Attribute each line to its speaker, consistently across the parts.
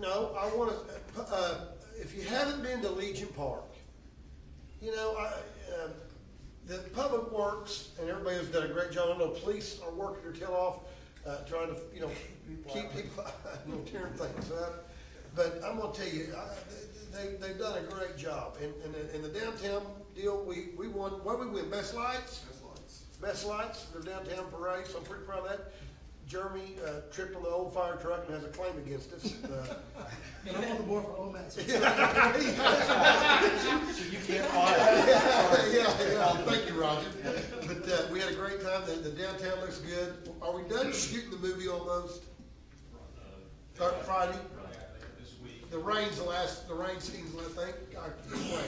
Speaker 1: no, I wanna, uh, if you haven't been to Legion Park, you know, I, um the public works and everybody has done a great job. I know police are working their tail off, uh, trying to, you know, keep people, you know, tearing things up. But I'm gonna tell you, I, they, they've done a great job. And, and, and the downtown deal, we, we won, what did we win, best lights?
Speaker 2: That's lights.
Speaker 1: Best lights, their downtown parade, so I'm pretty proud of that. Jeremy uh, tripped on the old fire truck and has a claim against us. Uh,
Speaker 3: And I'm on the board for OMAS.
Speaker 4: So you can't fire.
Speaker 1: Yeah, yeah, thank you, Roger. But uh, we had a great time, the the downtown looks good. Are we done shooting the movie almost? Uh, Friday?
Speaker 2: This week.
Speaker 1: The rain's the last, the rain seems, I think, I, anyway.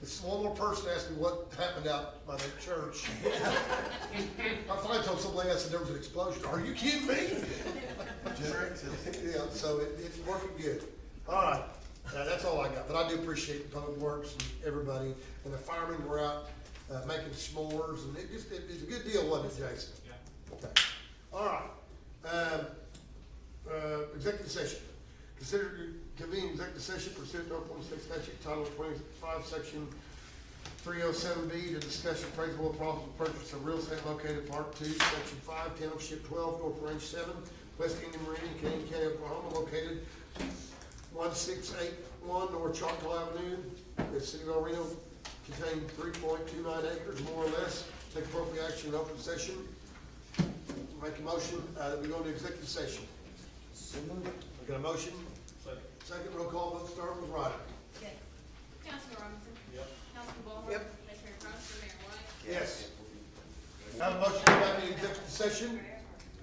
Speaker 1: This one more person asked me what happened out by the church. I finally told somebody, I said, there was an explosion. Are you kidding me? Yeah, so it, it's working good. All right, now, that's all I got, but I do appreciate the public works and everybody, and the firemen were out, uh, making s'mores, and it just, it, it's a good deal, wasn't it, Jason?
Speaker 2: Yeah.
Speaker 1: Okay, all right, um, uh, executive session. Consider convening executive session pursuant to Oklahoma State statute title twenty-five, section three oh seven B to discuss appraisal of possible purchase of real estate located in Part Two, Section Five, Township Twelve, North Range Seven, West Indian Marine, Canadian County, Oklahoma, located one six eight one North Choctaw Avenue, the city of El Reno, containing three point two nine acres, more or less. Take appropriate action in open session. Make a motion, uh, that we go into executive session. I got a motion?
Speaker 2: Second.
Speaker 1: Second roll call, vote start with Ryder.
Speaker 5: Yes. Councilman Robinson?
Speaker 2: Yep.
Speaker 5: Councilman Ballhorn?
Speaker 1: Yep.
Speaker 5: Vice Mayor Cronster, Mayor White?
Speaker 1: Yes. Have a motion to go back into executive session?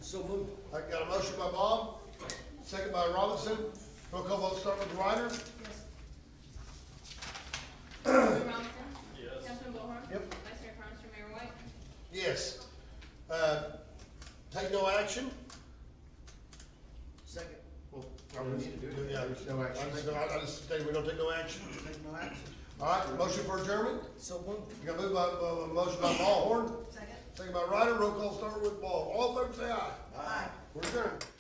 Speaker 1: So moved. I got a motion by Bob, second by Robinson. Roll call vote start with Ryder.
Speaker 5: Councilman Robinson?
Speaker 2: Yes.
Speaker 5: Councilman Ballhorn?
Speaker 1: Yep.
Speaker 5: Vice Mayor Cronster, Mayor White?
Speaker 1: Yes. Uh, Take no action?
Speaker 3: Second,
Speaker 1: Well,
Speaker 4: I don't need to do it.
Speaker 1: Yeah, there's no action. I think- I I just stated we don't take no action.
Speaker 3: take no action.
Speaker 1: All right, motion for adjournment?
Speaker 3: So moved.
Speaker 1: You got moved by, by- by- motion by Ballhorn,
Speaker 5: Second.
Speaker 1: second by Ryder. Roll call start with Ball. All in favor say aye.
Speaker 3: Aye.
Speaker 1: We're adjourned.